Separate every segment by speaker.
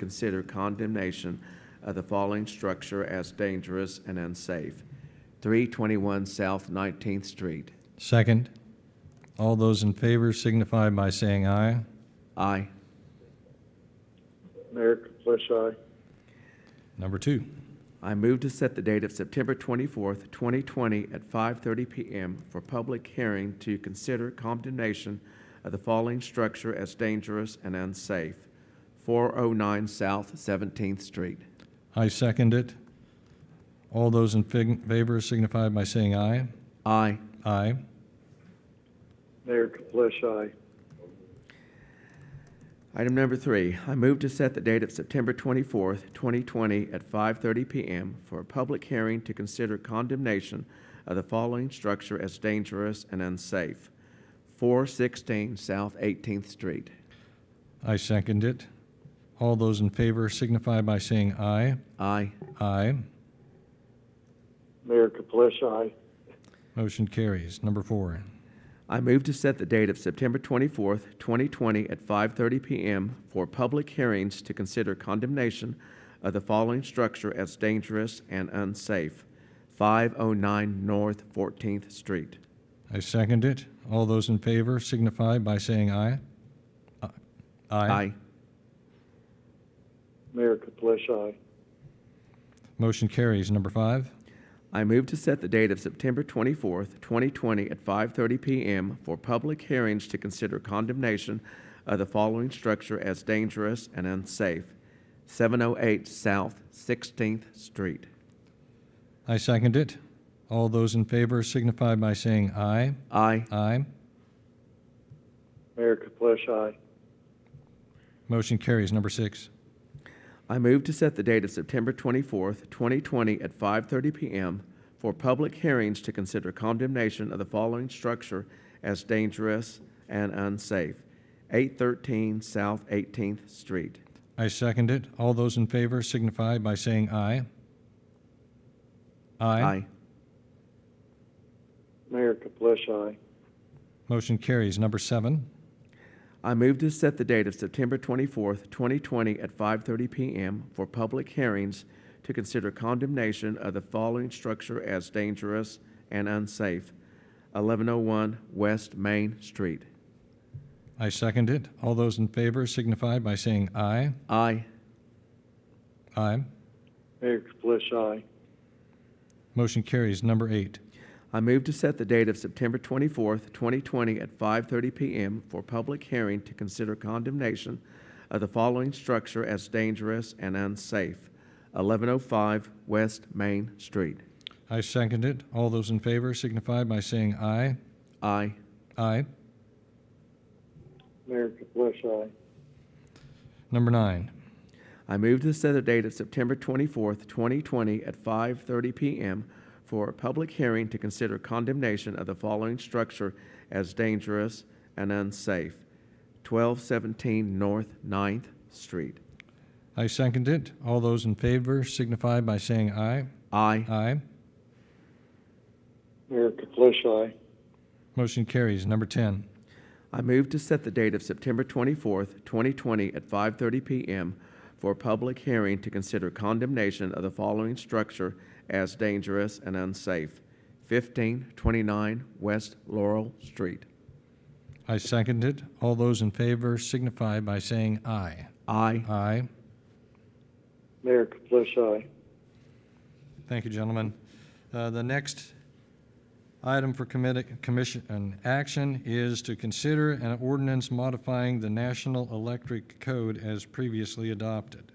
Speaker 1: consider condemnation of the following structure as dangerous and unsafe. 321 South 19th Street.
Speaker 2: Second. All those in favor signify by saying aye.
Speaker 1: Aye.
Speaker 3: Mayor Kaplish, aye.
Speaker 2: Number two.
Speaker 1: I move to set the date of September 24th, 2020 at 5:30 PM for public hearing to consider condemnation of the following structure as dangerous and unsafe. 409 South 17th Street.
Speaker 2: I second it. All those in fig- favor signify by saying aye.
Speaker 1: Aye.
Speaker 2: Aye.
Speaker 3: Mayor Kaplish, aye.
Speaker 1: Item number three, I move to set the date of September 24th, 2020 at 5:30 PM for a public hearing to consider condemnation of the following structure as dangerous and unsafe. 416 South 18th Street.
Speaker 2: I second it. All those in favor signify by saying aye.
Speaker 1: Aye.
Speaker 2: Aye.
Speaker 3: Mayor Kaplish, aye.
Speaker 2: Motion carries. Number four.
Speaker 1: I move to set the date of September 24th, 2020 at 5:30 PM for public hearings to consider condemnation of the following structure as dangerous and unsafe. 509 North 14th Street.
Speaker 2: I second it. All those in favor signify by saying aye. Aye.
Speaker 1: Aye.
Speaker 3: Mayor Kaplish, aye.
Speaker 2: Motion carries. Number five.
Speaker 1: I move to set the date of September 24th, 2020 at 5:30 PM for public hearings to consider condemnation of the following structure as dangerous and unsafe. 708 South 16th Street.
Speaker 2: I second it. All those in favor signify by saying aye.
Speaker 1: Aye.
Speaker 2: Aye.
Speaker 3: Mayor Kaplish, aye.
Speaker 2: Motion carries. Number six.
Speaker 1: I move to set the date of September 24th, 2020 at 5:30 PM for public hearings to consider condemnation of the following structure as dangerous and unsafe. 813 South 18th Street.
Speaker 2: I second it. All those in favor signify by saying aye. Aye.
Speaker 3: Mayor Kaplish, aye.
Speaker 2: Motion carries. Number seven.
Speaker 1: I move to set the date of September 24th, 2020 at 5:30 PM for public hearings to consider condemnation of the following structure as dangerous and unsafe. 1101 West Main Street.
Speaker 2: I second it. All those in favor signify by saying aye.
Speaker 1: Aye.
Speaker 2: Aye.
Speaker 3: Mayor Kaplish, aye.
Speaker 2: Motion carries. Number eight.
Speaker 1: I move to set the date of September 24th, 2020 at 5:30 PM for public hearing to consider condemnation of the following structure as dangerous and unsafe. 1105 West Main Street.
Speaker 2: I second it. All those in favor signify by saying aye.
Speaker 1: Aye.
Speaker 2: Aye.
Speaker 3: Mayor Kaplish, aye.
Speaker 2: Number nine.
Speaker 1: I move to set the date of September 24th, 2020 at 5:30 PM for a public hearing to consider condemnation of the following structure as dangerous and unsafe. 1217 North 9th Street.
Speaker 2: I second it. All those in favor signify by saying aye.
Speaker 1: Aye.
Speaker 2: Aye.
Speaker 3: Mayor Kaplish, aye.
Speaker 2: Motion carries. Number 10.
Speaker 1: I move to set the date of September 24th, 2020 at 5:30 PM for a public hearing to consider condemnation of the following structure as dangerous and unsafe. 1529 West Laurel Street.
Speaker 2: I second it. All those in favor signify by saying aye.
Speaker 1: Aye.
Speaker 2: Aye.
Speaker 3: Mayor Kaplish, aye.
Speaker 2: Thank you, gentlemen. Uh, The next item for committee, commission, and action is to consider an ordinance modifying the National Electric Code as previously adopted.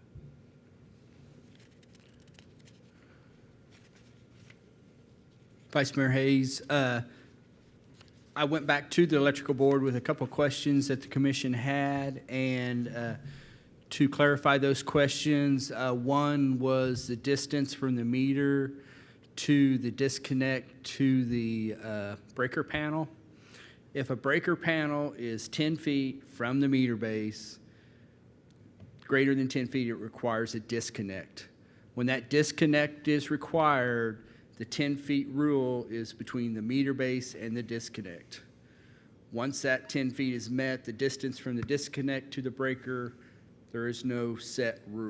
Speaker 4: Vice Mayor Hayes, uh, I went back to the electrical board with a couple of questions that the commission had, and uh, to clarify those questions, uh, one was the distance from the meter to the disconnect to the uh, breaker panel. If a breaker panel is 10 feet from the meter base, greater than 10 feet, it requires a disconnect. When that disconnect is required, the 10-feet rule is between the meter base and the disconnect. Once that 10 feet is met, the distance from the disconnect to the breaker There is no set rule.